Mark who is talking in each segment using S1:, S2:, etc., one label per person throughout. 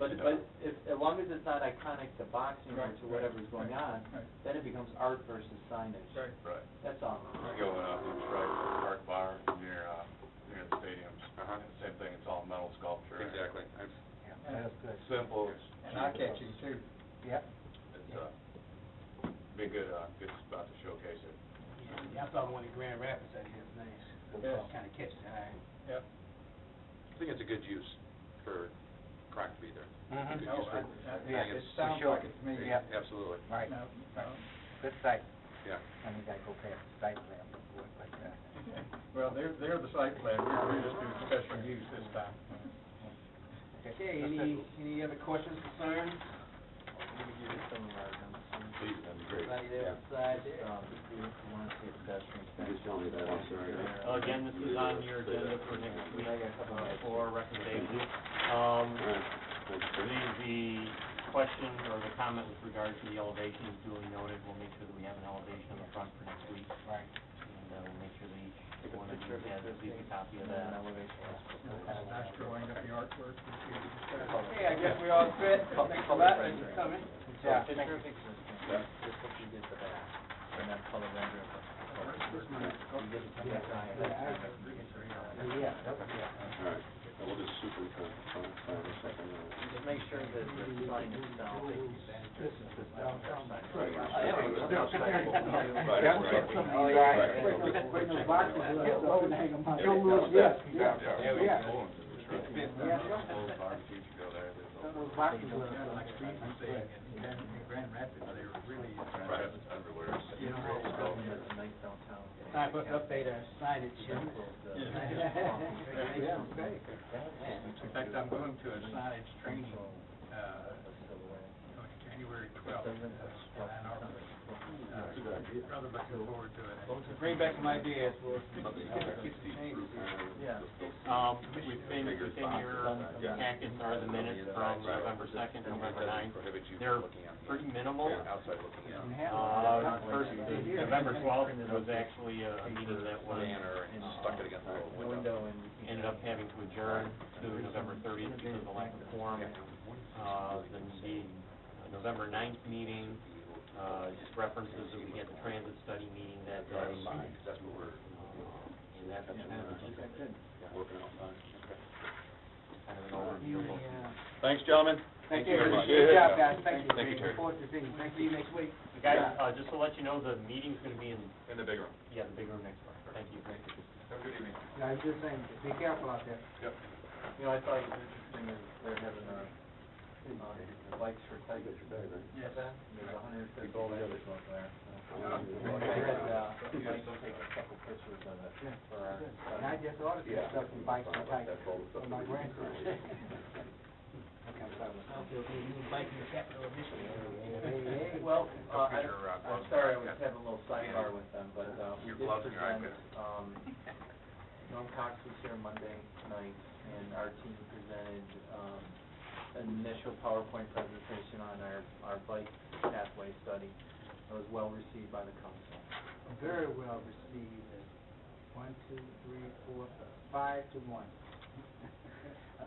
S1: But, but if, as long as it's not iconic to boxing or
S2: Right,
S1: to whatever's going on,
S2: right.
S1: then it becomes art versus signage.
S2: Right.
S3: Right.
S1: That's all.
S3: I go in up in Shrike Park Bar near, uh, near the stadiums.
S4: Uh-huh.
S3: And Same thing, it's all metal sculpture.
S4: Exactly. I've-
S2: And-
S3: It's Simple, it's
S2: And eye catching too. Yep.
S3: It's, uh, be a good, uh, good spot to showcase it.
S5: Yeah, I saw one in Grand Rapids that is nice.
S2: Yes.
S5: Kind of catches the eye.
S2: Yep.
S4: I think it's a good use for Croc to be there. Good
S2: No,
S4: use for-
S2: I-
S4: Mm-hmm. Oh, I
S2: I-
S4: think
S2: yeah,
S4: it's-
S2: it sounds like it to me, yep.
S4: Absolutely,
S2: Right. No, no.
S6: Good site,
S4: yeah.
S6: I mean, I go past site plan, work like that.
S2: Well, they're, they're the site plan, we're we're just doing special use this time.
S5: Okay, any, any other questions,
S1: Let
S5: concerns?
S1: me give you some of our numbers.
S3: Please, that'd be great.
S1: Anybody there outside, um, if you want to see a pedestrian statue.
S7: Just tell me that, I'm sorry.
S8: Uh, Again, this is on your agenda for next week, uh, for recommendations. Um, the, the question or the comment with regard to the elevation is duly noted, we'll make sure that we have an elevation on the front for next week.
S1: Right.
S8: And, uh, we'll make sure that
S1: Take
S8: each
S1: a
S8: one of
S1: picture
S8: you
S1: of
S8: has
S1: it,
S8: at least a copy of
S1: and then
S8: that.
S1: an elevation.
S2: Nice drawing up the artwork.
S5: Okay, I guess we all fit. Thanks a lot, thanks for coming.
S1: So
S5: Yeah,
S1: picture
S5: thank you.
S1: of existing, just what you did for that, and then color rendering. You did it from the side, that's kind
S6: Yeah, that
S1: of-
S6: was, yeah.
S7: All right, and we'll just superimpose on on the second one.
S1: Just make sure that the sign itself is, this is the stuff that's
S7: Right.
S1: signed. Uh, yeah, but it's not signed.
S7: Right,
S6: That's
S7: right.
S6: what somebody-
S7: Oh, yeah.
S6: Right.
S7: Right.
S6: Right.
S7: Right.
S6: Boxes, yeah,
S7: Yeah.
S6: load and hang 'em up.
S7: Yeah.
S6: Don't lose- yes, yeah.
S3: Yeah, we
S6: Yeah.
S3: can pull them to the truck.
S2: Yeah.
S3: Old barbecue to go there, there's a-
S6: Those boxes were-
S2: Like Steve was saying, in Grand- in Grand Rapids, they were really.
S3: Right, everywhere.
S2: You know,
S1: It's a nice downtown.
S5: Sign, put, update our signage.
S2: Yeah.
S5: Yeah.
S2: In fact, I'm going to a signage training, uh, on January twelfth, uh, in Arbor. Uh, Rather looking forward to it.
S5: Bring back some ideas, we'll, we'll get some changes.
S1: Yeah.
S8: Um, within, within your packets are the minutes from November second, November ninth.
S4: Prohibit you
S8: They're
S4: from looking out.
S8: pretty minimal.
S4: Yeah, outside looking out.
S8: Uh, first, November twelfth was actually a a meeting that was
S4: Banner and stuck it against the
S1: Window
S4: window.
S1: and.
S8: ended up having to adjourn to November thirtieth because of the lack of quorum. Uh, then the November ninth meeting, uh, just references that we had the transit study meeting that day.
S4: Driving by, 'cause that's what we're
S8: Uh, And that's kind
S4: working on.
S8: of an overview of what-
S4: Thanks, gentlemen.
S5: Thank
S4: you
S5: you,
S4: very much.
S5: good job, guys, thank you.
S4: Thank you, Terry.
S5: Look forward to seeing you, thank you next week.
S8: Guys, uh, just to let you know, the meeting's gonna be in,
S4: In the big room.
S8: yeah, the big room next door. Thank you.
S4: Have a good evening.
S5: No, I was just saying, be careful out there.
S1: You know, I thought it was interesting that they're having, uh, uh, the bikes for tigers.
S2: Yes.
S1: There's a hundred and fifty tigers over there.
S2: Yeah.
S1: I had, uh, Mike take a couple pictures of it for our.
S5: And I just ordered some stuff from Bikes and Tigers for my grandson. Hey, hey,
S1: Well, uh, I,
S4: Computer, uh,
S1: I'm
S4: gloves.
S1: sorry, I was having a little sidebar with them, but, uh, we
S4: Your
S1: did
S4: gloves and your
S1: present, um, Norm Cox was here Monday night, and our team presented, um, an initial PowerPoint presentation on our, our bike pathway study. It was well received by the council.
S5: Very well received, one, two, three, four, five to one.
S2: I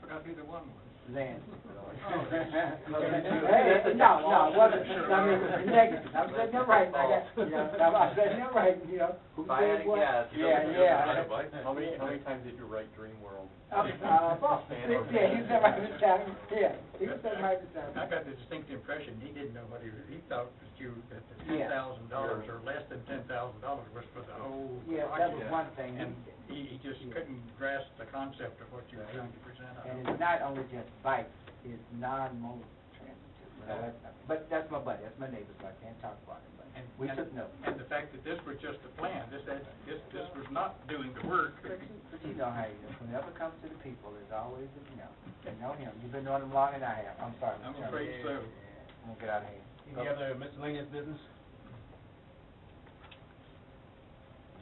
S2: forgot who the one was.
S5: Lance.
S2: Oh, that's-
S5: Hey, no, no, it wasn't, I mean, it was negative, I'm saying that right, I got, you know, I'm saying that right, you know, who
S1: If I had
S5: said
S1: a
S5: what?
S1: guess.
S5: Yeah, yeah.
S1: How many, how many times did you write Dream World?
S5: Um, uh, boss, yeah, he said right this time, yeah, he said right this time.
S2: I got the distinct impression he didn't know what he was, he thought that you, that the ten
S5: Yeah.
S2: thousand dollars or less than ten thousand dollars was for the whole.
S5: Yeah, that was one thing,
S2: And he, he just couldn't grasp the concept of what you were trying to present. I
S5: and
S2: don't-
S5: it's not only just bikes, it's non-mobile transit too, so that's, but that's my buddy, that's my neighbor, so I can't talk about it, but
S2: And-
S5: we
S2: and-
S5: took notes.
S2: And the fact that this was just a plan, this, had- this, this was not doing the work.
S5: But you know how he is, whenever it comes to the people, there's always, you know, you know him, you've been knowing him longer than I have, I'm sorry.
S2: I'm
S5: Mr.
S2: afraid
S5: Chairman.
S2: so.
S5: I'm gonna get out of here.
S2: Any
S5: other miscellaneous business?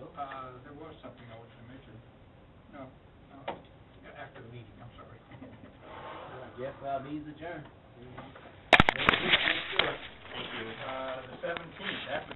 S2: Uh, there was something I was to mention. No, no, after the meeting, I'm sorry.
S5: Yes, uh, means adjourned.
S2: Uh, the seventeenth, after